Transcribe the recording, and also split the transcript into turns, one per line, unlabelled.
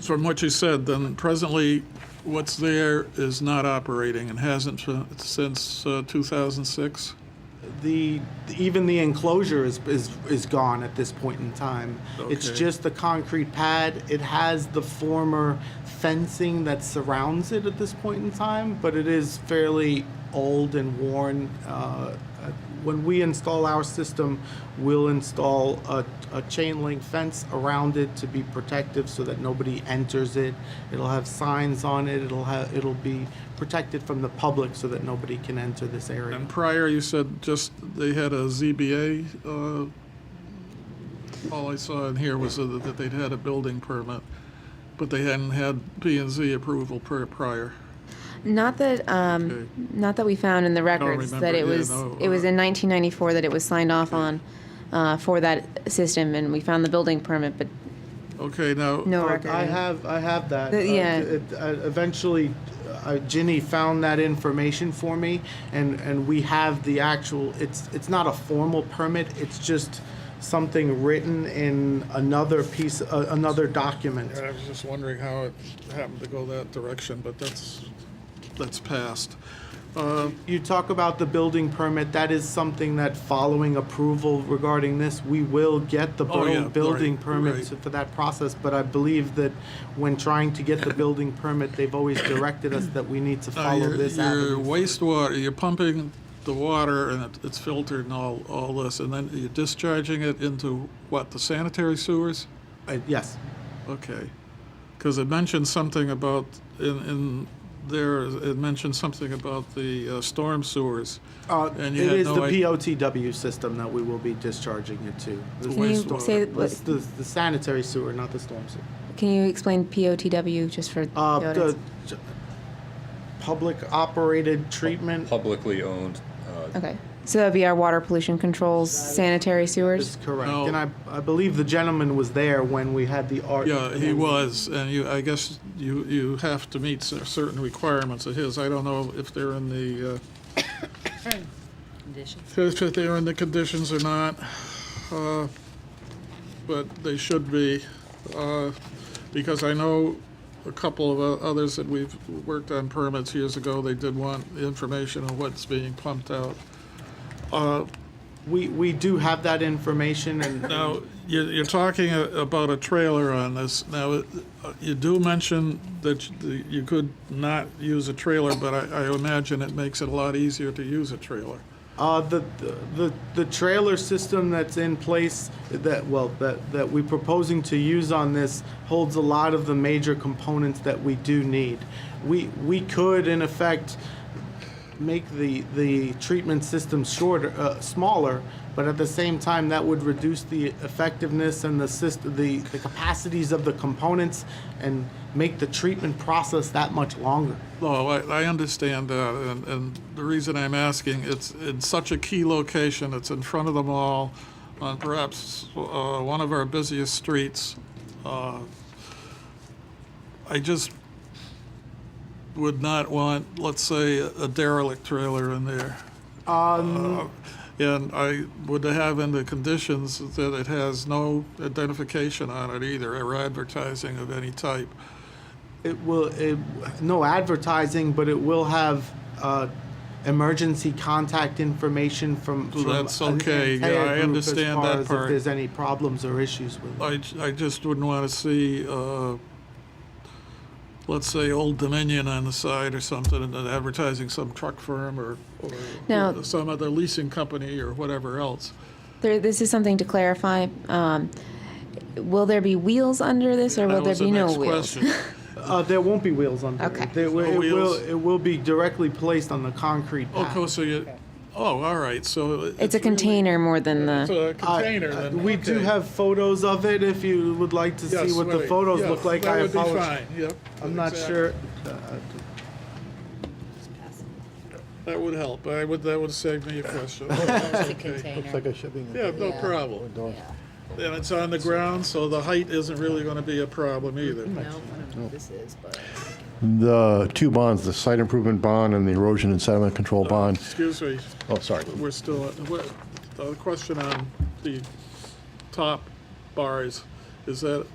from what you said, then presently, what's there is not operating and hasn't fi- since uh, 2006?
The, even the enclosure is, is, is gone at this point in time. It's
Okay.
just the concrete pad. It has the former fencing that surrounds it at this point in time, but it is fairly old and worn. Uh, uh, When we install our system, we'll install a, a chain link fence around it to be protective so that nobody enters it. It'll have signs on it. It'll have, it'll be protected from the public so that nobody can enter this area.
And prior, you said just they had a ZBA. uh, All I saw in here was that that they'd had a building permit, but they hadn't had P and Z approval per- prior.
Not that, um, not that we found in the records that
remember,
it
yeah,
was,
no,
it was
uh,
in 1994 that it was signed off on uh, for that system, and we found the building permit, but
Okay, now.
no
I-
record.
I have, I have that.
The-
Uh,
yeah.
it- uh, Eventually, uh, Ginny found that information for me, and, and we have the actual, it's, it's not a formal permit, it's just something written in another piece, uh, another document.
I was just wondering how it happened to go that direction, but that's, that's passed. Uh,
You talk about the building permit, that is something that following approval regarding this, we will get the
Oh, yeah,
buil-
right,
building
right.
permit to- for that process, but I believe that when trying to get the building permit, they've always directed us that we need to
Now,
follow
your-
this
Your
avenue.
wastewater, you're pumping the water and it- it's filtered and all, all this, and then you're discharging it into what, the sanitary sewers?
Uh, Yes.
Okay. Because it mentioned something about, in, in there, it mentioned something about the uh, storm sewers.
Uh, It
And you had
is the
no idea-
POTW system that we will be discharging it to. The
Can you
storm-
say, what-
It's the the sanitary sewer, not the storm sewer.
can you explain POTW just for the
Uh,
audience?
the j- Public operated treatment
publicly owned. uh,
Okay, so that'd be our water pollution controls, sanitary
is
sewers?
correct.
No.
And I, I believe the gentleman was there when we had the art.
Yeah, he was, and you, I guess you, you have to meet cer- certain requirements of his. I don't know if they're in the, uh, if if they're in the conditions or not, uh, but they should be, uh, because I know a couple of o- others that we've worked on permits years ago, they did want information on what's being pumped out. Uh,
We, we do have that information and.
now, you're, you're talking a- about a trailer on this. Now, it- you do mention that you- the- you could not use a trailer, but I, I imagine it makes it a lot easier to use a trailer.
Uh, the, the, the trailer system that's in place that, well, that, that we're proposing to use on this holds a lot of the major components that we do need. We, we could in effect make the, the treatment system shorter, uh, smaller, but at the same time, that would reduce the effectiveness and the system, the, the capacities of the components and make the treatment process that much longer.
No, I, I understand that, and, and the reason I'm asking, it's in such a key location, it's in front of the mall, on perhaps uh, one of our busiest streets. Uh, I just would not want, let's say, a derelict trailer in there. Um. And I would have in the conditions that it has no identification on it either, or advertising of any type.
It will, it, no advertising, but it will have, uh, emergency contact information from. from
That's
an
okay. Yeah,
entire
I
group as
understand
far
that
as if
part. Uh,
there's any problems or issues with it.
I, j- I just wouldn't want to see, uh, let's say, Old Dominion on the side or something, and then advertising some truck firm or,
Now-
or some other leasing company or whatever else.
There, this is something to clarify. um, Will there be wheels under this, or will
That
there
was the
be no
next
wheels?
question.
Uh, there won't be wheels on
Okay.
There will,
No
it will,
wheels?
it will be directly placed on the concrete pad.
Okay, so you, oh, all right, so.
It's a
really-
container more than
It's
the,
a
I-
container
uh,
then.
We do
okay.
have photos of it if you would like to see
Yes,
what the
right.
photos
Yeah,
look like.
That
I
would be
apologize.
fine, yep.
I'm not
exactly.
sure. Uh,
That would help, I would, that would save me a question.
The
Okay.
container.
Like a shipping.
Yeah, no
Yeah.
problem.
Door.
And it's on the ground, so the height isn't really going to be a problem either.
No, I don't know what this is, but
The two bonds, the site improvement bond and the erosion and sediment control bond.
Excuse me,
Oh, sorry.
we're still, what- the question on the top bars, is that,